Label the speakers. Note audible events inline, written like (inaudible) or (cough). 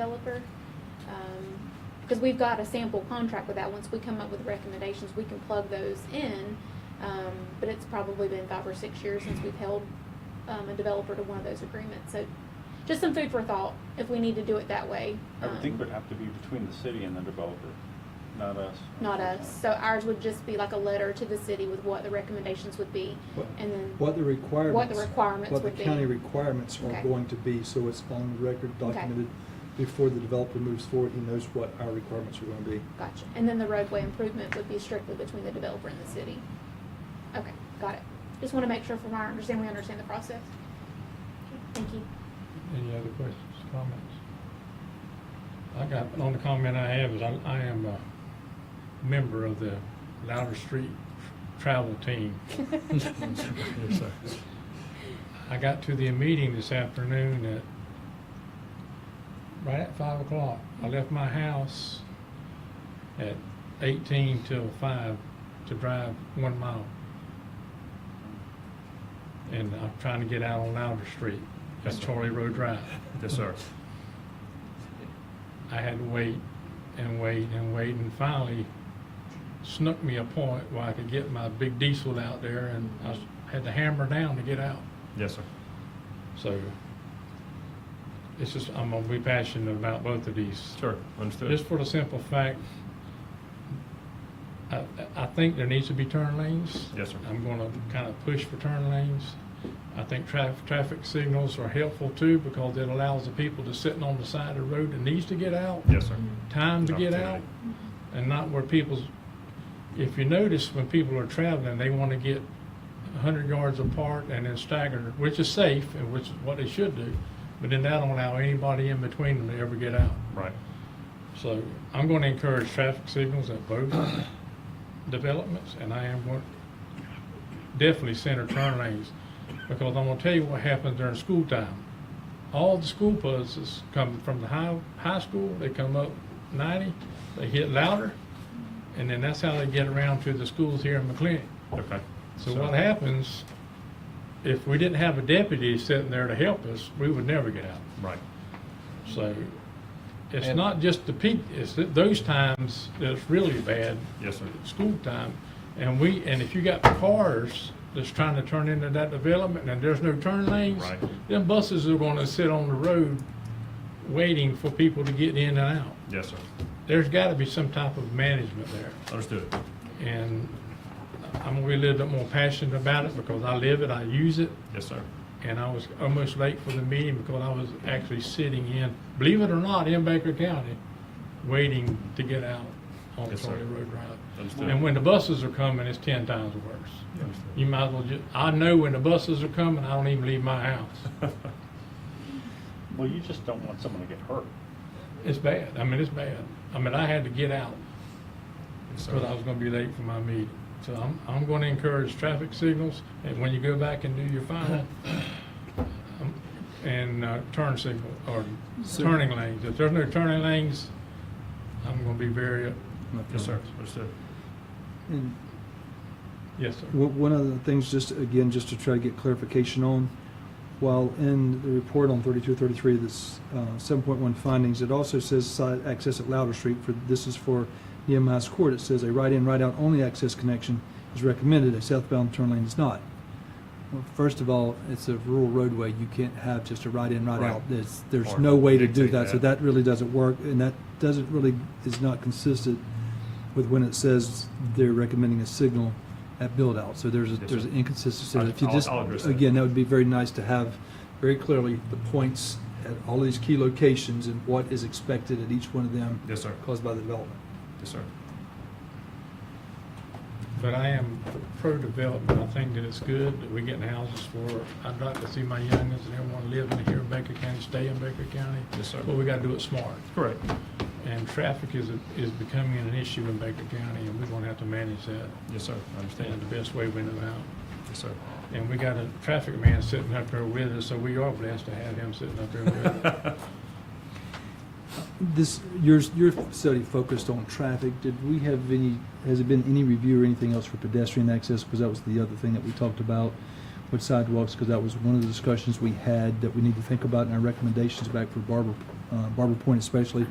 Speaker 1: developer. Um, because we've got a sample contract with that, once we come up with recommendations, we can plug those in. Um, but it's probably been five or six years since we've held, um, a developer to one of those agreements, so just some food for thought, if we need to do it that way.
Speaker 2: I would think
Speaker 1: Um,
Speaker 2: it would have to be between the city and the developer, not us.
Speaker 1: Not us, so ours would just be like a letter to the city with what the recommendations would be,
Speaker 3: What-
Speaker 1: and then.
Speaker 3: What the requirements.
Speaker 1: requirements
Speaker 3: what the
Speaker 1: would be.
Speaker 3: county requirements
Speaker 1: Okay.
Speaker 3: are going to be, so it's on the record
Speaker 1: Okay.
Speaker 3: documented before the developer moves forward, he knows what our requirements are gonna be.
Speaker 1: Gotcha. And then the roadway improvement would be strictly between the developer and the city. Okay, got it. Just want to make sure from our understanding, we understand the process. Thank you.
Speaker 4: Any other questions, comments? I got, the only comment I have is I, I am a member of the Louder Street Travel Team.
Speaker 1: (laughs)
Speaker 4: I got to the meeting this afternoon at, right at five o'clock. I left my house at eighteen till five to drive one mile. And I'm trying to get out on Louder Street. That's Charlie Road Drive.
Speaker 5: Yes, sir.
Speaker 4: I had to wait and wait and wait and finally snuck me a point where I could get my big diesel out there and I s- had to hammer down to get out.
Speaker 5: Yes, sir.
Speaker 4: So it's just, I'm gonna be passionate about both of these.
Speaker 5: Sure, understood.
Speaker 4: Just for the simple fact, I, I think there needs to be turn lanes.
Speaker 5: Yes, sir.
Speaker 4: I'm gonna kind of push for turn lanes. I think traffic, traffic signals are helpful too because it allows the people to sitting on the side of the road that needs to get out.
Speaker 5: Yes, sir.
Speaker 4: time to get out
Speaker 5: Opportunity.
Speaker 4: and not where people's, if you notice, when people are traveling, they want to get hundred yards apart and then stagger, which is safe and which is what they should do. But then that don't allow anybody in between them to ever get out.
Speaker 5: Right.
Speaker 4: So I'm going to encourage traffic signals at both developments and I am going, definitely center turn lanes. Because I'm going to tell you what happens during school time. All the school buses come from the high, high school, they come up ninety, they hit louder. And then that's how they get around to the schools here in McLean.
Speaker 5: Okay.
Speaker 4: So what happens, if we didn't have a deputy sitting there to help us, we would never get out.
Speaker 5: Right.
Speaker 4: So
Speaker 5: Mm-hmm.
Speaker 4: it's
Speaker 6: And-
Speaker 4: not just the peak, it's th- those times that's really bad,
Speaker 5: Yes, sir.
Speaker 4: school time. And we, and if you got cars that's trying to turn into that development and there's no turn lanes,
Speaker 5: Right.
Speaker 4: then buses are gonna sit on the road waiting for people to get in and out.
Speaker 5: Yes, sir.
Speaker 4: There's gotta be some type of management there.
Speaker 5: Understood.
Speaker 4: And I'm gonna be a little bit more passionate about it because I live it, I use it.
Speaker 5: Yes, sir. (laughs)
Speaker 4: And I was almost late for the meeting because I was actually sitting in, believe it or not, in Baker County, waiting to get out on
Speaker 5: Yes, sir.
Speaker 4: Charlie Road Drive.
Speaker 5: Understood.
Speaker 4: And when the buses are coming, it's ten times worse. You
Speaker 5: Understood.
Speaker 4: might as well ju, I know when the buses are coming, I don't even leave my house.
Speaker 2: Well, you just don't want someone to get hurt.
Speaker 4: It's bad. I mean, it's bad. I mean, I had to get out
Speaker 5: Yes,
Speaker 4: because I
Speaker 5: sir.
Speaker 4: was gonna be late for my meeting. So I'm, I'm gonna encourage traffic signals and when you go back and do your final, um, and, uh, turn signal, or
Speaker 3: So-
Speaker 4: turning lanes. If there's no turning lanes, I'm gonna be very,
Speaker 5: Yes, sir. Understood.
Speaker 3: And
Speaker 4: yes, sir.
Speaker 3: One one of the things, just again, just to try to get clarification on, while in the report on thirty-two, thirty-three, this uh, seven point one findings, it also says side access at Louder Street for, this is for Nehemiah's Court. It says a right-in, right-out only access connection is recommended, a southbound turn lane is not. Well, First of all, it's a rural roadway. You can't have just a right-in, right-out.
Speaker 5: Right.
Speaker 3: There's, there's
Speaker 5: Or
Speaker 3: no way to do
Speaker 5: dictate
Speaker 3: that. So
Speaker 5: that.
Speaker 3: that really doesn't work, and that doesn't really, is not consistent with when it says they're recommending a signal at build-out. So there's, a-
Speaker 5: Yes,
Speaker 3: there's
Speaker 5: sir.
Speaker 3: an inconsistency.
Speaker 5: I-
Speaker 3: And If you
Speaker 5: I'll-
Speaker 3: just,
Speaker 5: I'll address that.
Speaker 3: again, that would be very nice to have very clearly the points at all these key locations and what is expected at each one of them
Speaker 5: Yes, sir.
Speaker 3: caused by the development.
Speaker 5: Yes, sir.
Speaker 4: But I am pro-development. I think that it's good that we're getting houses for, I'd like to see my youngins and everyone living here in Baker County, stay in Baker County.
Speaker 5: Yes, sir.
Speaker 4: But we gotta do it smart.
Speaker 5: Correct.
Speaker 4: And traffic is, is becoming an issue in Baker County, and we're gonna have to manage that
Speaker 5: Yes, sir. I
Speaker 4: in
Speaker 5: understand.
Speaker 4: the best way we know how.
Speaker 5: Yes, sir.
Speaker 4: And we got a traffic man sitting up there with us, so we are blessed to have him sitting up there with us.
Speaker 5: (laughs)
Speaker 3: This, your, your study focused on traffic. Did we have any, has it been any review or anything else for pedestrian access? Because that was the other thing that we talked about. with sidewalks, because that was one of the discussions we had that we need to think about in our recommendations back for Barber, uh, Barber Point especially.